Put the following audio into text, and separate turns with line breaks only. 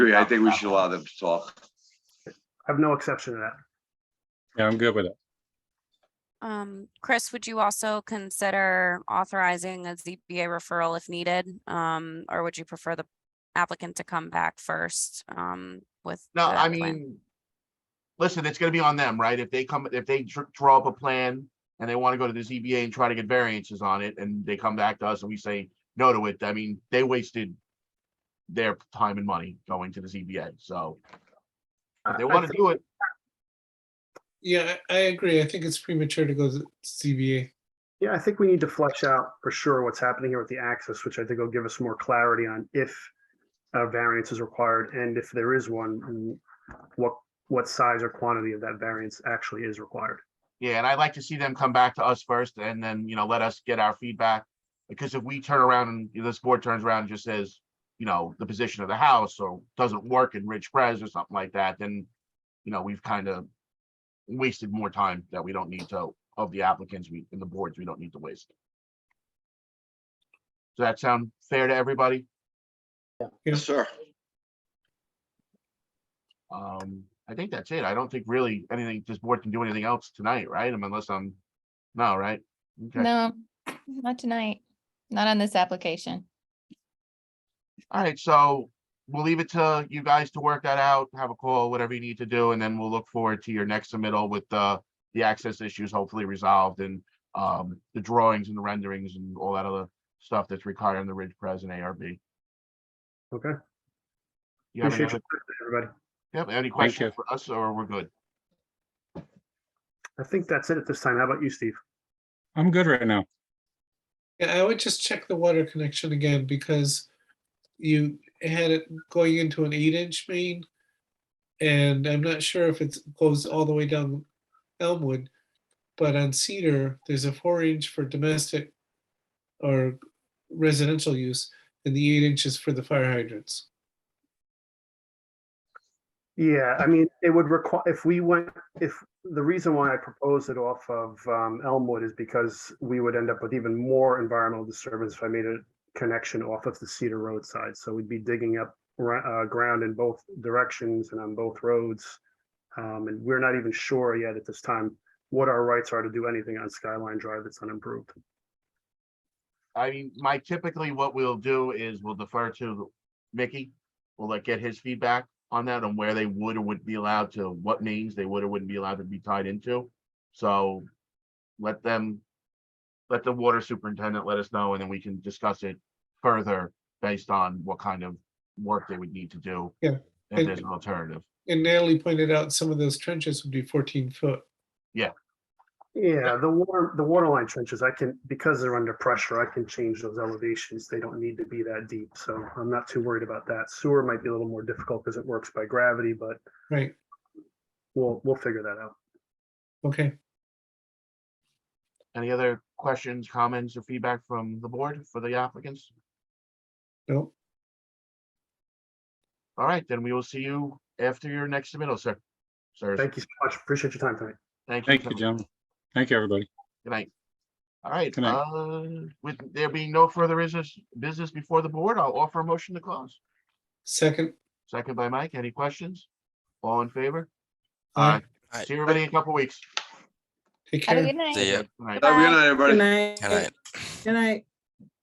agree. I think we should allow them to talk.
I have no exception to that.
Yeah, I'm good with it.
Um, Chris, would you also consider authorizing a ZBA referral if needed? Um, or would you prefer the applicant to come back first, um, with?
No,
the
I
plan?
mean, listen, it's gonna be on them, right? If they come, if they dr- draw up a plan and they want to go to the ZBA and try to get variances on it, and they come back to us and we say no to it, I mean, they wasted their time and money going to the ZBA, so if they
I- I
want to
think-
do it,
Yeah, I I agree. I think it's premature to go to CBA.
Yeah, I think we need to flesh out for sure what's happening here with the access, which I think will give us more clarity on if a variance is required and if there is one, w- what, what size or quantity of that variance actually is required.
yeah, and I'd like to see them come back to us first and then, you know, let us get our feedback. Because if we turn around and you know, this board turns around and just says, you know, the position of the house or doesn't work in Ridge Pres or something like that, then, you know, we've kind of wasted more time that we don't need to, of the applicants, we, and the boards, we don't need to waste. Does that sound fair to everybody?
Yes, sir.
Um, I think that's it. I don't think really anything, this board can do anything else tonight, right? I mean, Unless I'm, no, right? Okay.
No, not tonight, not on this application.
All right, so we'll leave it to you guys to work that out, have a call, whatever you need to do, and then we'll look forward to your next submittal with uh the access issues hopefully resolved and um the drawings and the renderings and all that other stuff that's required in the Ridge Pres and ARB.
Okay?
You have any,
Appreciate
other-
your time, everybody.
you have any
you.
questions for us or we're good?
I think that's it at this time. How about you, Steve?
I'm good right now.
Yeah, I would just check the water connection again because you had it going into an eight inch main. And I'm not sure if it goes all the way down Elmwood, but on Cedar, there's a four inch for domestic or residential use and the eight inches for the fire hydrants.
Yeah, I mean, it would require, if we went, if, the reason why I proposed it off of um, Elmwood is because we would end up with even more environmental disturbance if I made a connection off of the Cedar Road side. So we'd be digging up gra- uh, ground in both directions and on both roads. Um, And we're not even sure yet at this time what our rights are to do anything on Skyline Drive that's unimproved.
I mean, my typically what we'll do is we'll defer to Mickey. We'll like get his feedback on that, on where they would or wouldn't be allowed to, what names they would or wouldn't be allowed to be tied into. So let them, let the water superintendent let us know, and then we can discuss it further based on what kind of work they would need to do.
Yeah,
If
and-
there's an alternative.
And Natalie pointed out some of those trenches would be fourteen foot.
Yeah, the water, the water line trenches, I can, because they're under pressure, I can change those elevations. They don't need to be that deep, so I'm not too worried about that. Sewer might be a little more difficult because it works by gravity, but
Right,
we'll, we'll figure that out.
okay.
Any other questions, comments, or feedback from the board for the applicants?
No,
All right, then we will see you after your next submittal, sir. Sir.
Thank you so much. Appreciate your time tonight.
Thank you.
Thank you,
Tim.
gentlemen. Thank you, everybody.
Good night. All right,
Good night.
uh, with there being no further business, business before the board, I'll offer a motion to close.
second.
Second by Mike, any questions? All in favor?
uh,
Aye. See everybody in a couple weeks.
Take
Have a
care.
good night.
See ya.
Good night.
Have a good night, everybody.
Good night.
Good night.
Good night.